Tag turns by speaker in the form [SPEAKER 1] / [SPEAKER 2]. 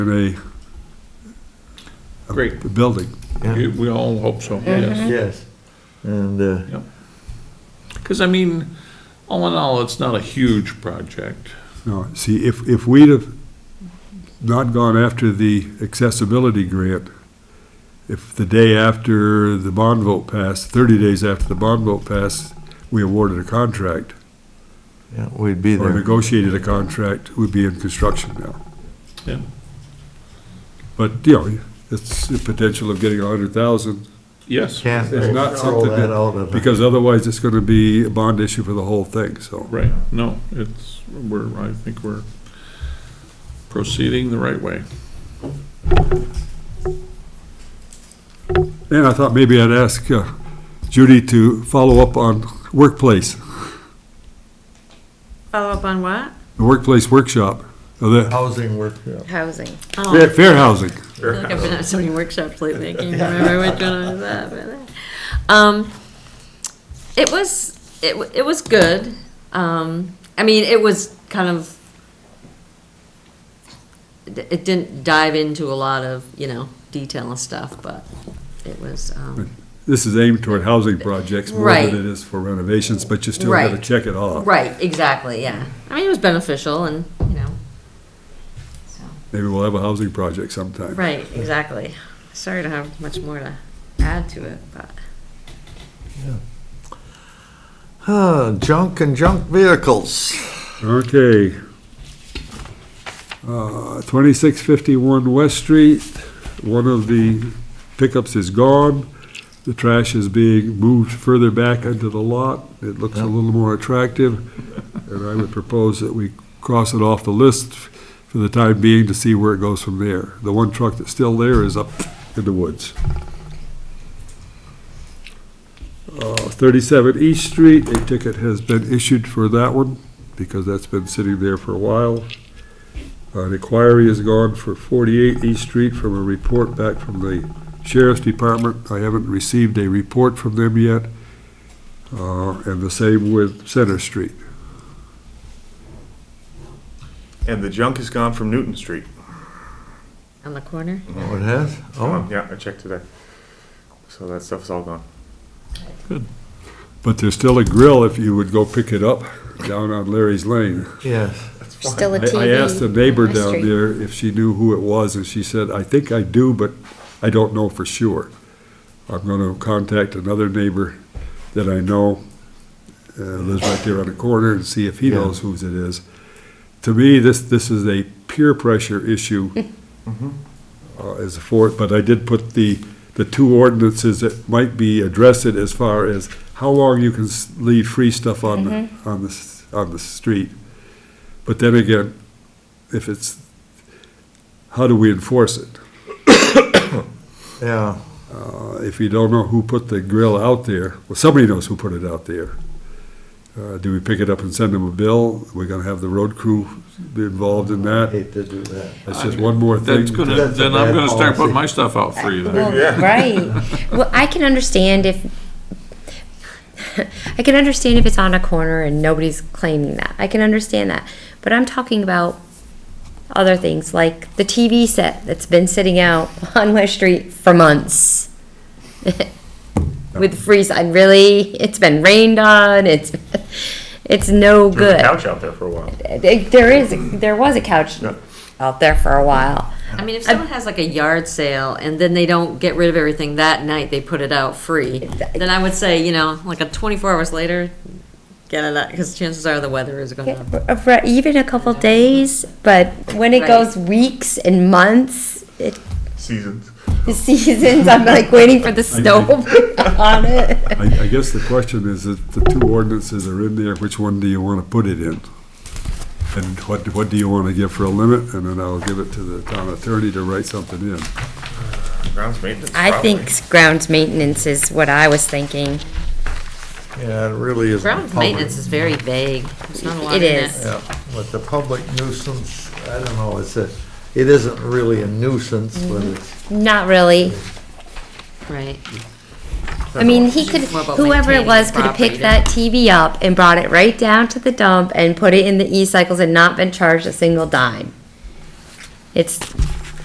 [SPEAKER 1] a,
[SPEAKER 2] Great.
[SPEAKER 1] a building.
[SPEAKER 2] We we all hope so, yes.
[SPEAKER 3] Yes, and, uh,
[SPEAKER 2] Because I mean, all in all, it's not a huge project.
[SPEAKER 1] No, see, if, if we'd have not gone after the accessibility grant, if the day after the bond vote passed, thirty days after the bond vote passed, we awarded a contract
[SPEAKER 3] yeah, we'd be
[SPEAKER 1] or
[SPEAKER 3] there.
[SPEAKER 1] negotiated a contract, we'd be in construction now.
[SPEAKER 2] Yeah.
[SPEAKER 1] But, you know, it's the potential of getting a hundred thousand,
[SPEAKER 2] Yes.
[SPEAKER 3] Can't
[SPEAKER 1] It's not
[SPEAKER 3] throw
[SPEAKER 1] something
[SPEAKER 3] that
[SPEAKER 1] that-
[SPEAKER 3] out of.
[SPEAKER 1] because otherwise it's gonna be a bond issue for the whole thing, so.
[SPEAKER 2] Right, no, it's, we're, I think we're proceeding the right way.
[SPEAKER 1] And I thought maybe I'd ask uh, Judy to follow up on workplace,
[SPEAKER 4] Follow up on what?
[SPEAKER 1] the workplace workshop, uh, the
[SPEAKER 3] Housing work.
[SPEAKER 5] Housing.
[SPEAKER 4] Oh,
[SPEAKER 1] fair- fair housing.
[SPEAKER 4] I feel like I've been at so many workshops lately, I can't even remember which one I was at. but, uh, Um, it was, it, wa- it was good. Um, I mean, it was kind of, it it didn't dive into a lot of, you know, detail and stuff, but it was, um,
[SPEAKER 1] This is aimed toward housing projects more
[SPEAKER 4] Right.
[SPEAKER 1] than it is for renovations, but you still gotta
[SPEAKER 4] Right.
[SPEAKER 1] check it off.
[SPEAKER 4] right, exactly, yeah. I mean, it was beneficial and, you know, so.
[SPEAKER 1] Maybe we'll have a housing project sometime.
[SPEAKER 4] Right, exactly. Sorry to have much more to add to it, but.
[SPEAKER 3] Huh, junk and junk vehicles.
[SPEAKER 1] Okay. Uh, 2651 West Street, one of the pickups is gone. The trash is being moved further back into the lot. It looks a little more attractive, and I would propose that we cross it off the list for the time being to see where it goes from there. The one truck that's still there is up in the woods. Uh, 37 East Street, a ticket has been issued for that one because that's been sitting there for a while. An inquiry is gone for 48 East Street from a report back from the Sheriff's Department. I haven't received a report from them yet. Uh, And the same with Center Street.
[SPEAKER 6] And the junk is gone from Newton Street.
[SPEAKER 4] On the corner?
[SPEAKER 3] Oh, it has? Oh,
[SPEAKER 6] Um, Yeah, I checked today. So that stuff's all gone.
[SPEAKER 1] But there's still a grill if you would go pick it up down on Larry's Lane.
[SPEAKER 3] yes.
[SPEAKER 5] Still a
[SPEAKER 1] I
[SPEAKER 5] TV.
[SPEAKER 1] I asked the neighbor
[SPEAKER 5] on the
[SPEAKER 1] down
[SPEAKER 5] street.
[SPEAKER 1] there if she knew who it was, and she said, I think I do, but I don't know for sure. I'm gonna contact another neighbor that I know, uh, lives right there on the corner, and see if he
[SPEAKER 3] Yeah.
[SPEAKER 1] knows whose it is. To me, this, this is a peer pressure issue uh, as for, but I did put the, the two ordinances that might be addressed it as far as how long you can s- leave free stuff on, the
[SPEAKER 5] Mm-hmm.
[SPEAKER 1] on the, s- on the street. But then again, if it's, how do we enforce it?
[SPEAKER 3] Yeah,
[SPEAKER 1] Uh, If you don't know who put the grill out there, well, somebody knows who put it out there. Uh, Do we pick it up and send them a bill? We're gonna have the road crew be involved in that?
[SPEAKER 3] hate to do that.
[SPEAKER 1] It's just one more thing.
[SPEAKER 2] That's gonna,
[SPEAKER 3] That's a
[SPEAKER 2] then I'm
[SPEAKER 3] bad
[SPEAKER 2] gonna start
[SPEAKER 3] policy.
[SPEAKER 2] putting my stuff out for you then.
[SPEAKER 5] Well, right. Well, I can understand if, I can understand if it's on a corner and nobody's claiming that. I can understand that. But I'm talking about other things, like the TV set that's been sitting out on West Street for months. With freeze, I really, it's been rained on, it's, it's
[SPEAKER 6] There
[SPEAKER 5] no
[SPEAKER 6] was a
[SPEAKER 5] good.
[SPEAKER 6] Couch out there for a while.
[SPEAKER 5] There is, there was a couch out there for a while.
[SPEAKER 4] I mean, if someone has like a yard sale and then they don't get rid of everything that night, they put it out free, then I would say, you know, like a twenty-four hours later, get it out, because chances are the weather is
[SPEAKER 5] Yeah,
[SPEAKER 4] gonna.
[SPEAKER 5] for- for even a couple days, but when it
[SPEAKER 4] Right.
[SPEAKER 5] goes weeks and months, it,
[SPEAKER 6] Seasons.
[SPEAKER 5] the seasons, I'm like waiting for the snow on it.
[SPEAKER 1] I, I guess the question is, if the two ordinances are in there, which one do you wanna put it in? And what, what do you wanna give for a limit? And then I'll give it to the town attorney to write something in.
[SPEAKER 6] Grounds maintenance.
[SPEAKER 5] I
[SPEAKER 6] probably.
[SPEAKER 5] think grounds maintenance is what I was thinking.
[SPEAKER 3] Yeah, it really is.
[SPEAKER 4] Ground maintenance is very vague. There's not a lot
[SPEAKER 5] It
[SPEAKER 4] in it.
[SPEAKER 5] is.
[SPEAKER 3] Yeah, but the public nuisance, I don't know, it's a, it isn't really a nuisance, but
[SPEAKER 4] Mm-hmm.
[SPEAKER 3] it's,
[SPEAKER 5] Not really.
[SPEAKER 4] Right.
[SPEAKER 5] I mean, he could,
[SPEAKER 4] More about
[SPEAKER 5] whoever it
[SPEAKER 4] maintaining
[SPEAKER 5] was
[SPEAKER 4] the
[SPEAKER 5] could have
[SPEAKER 4] property
[SPEAKER 5] picked that TV up and brought it right down to the dump and put it in the e-cycles and not been charged a single dime. It's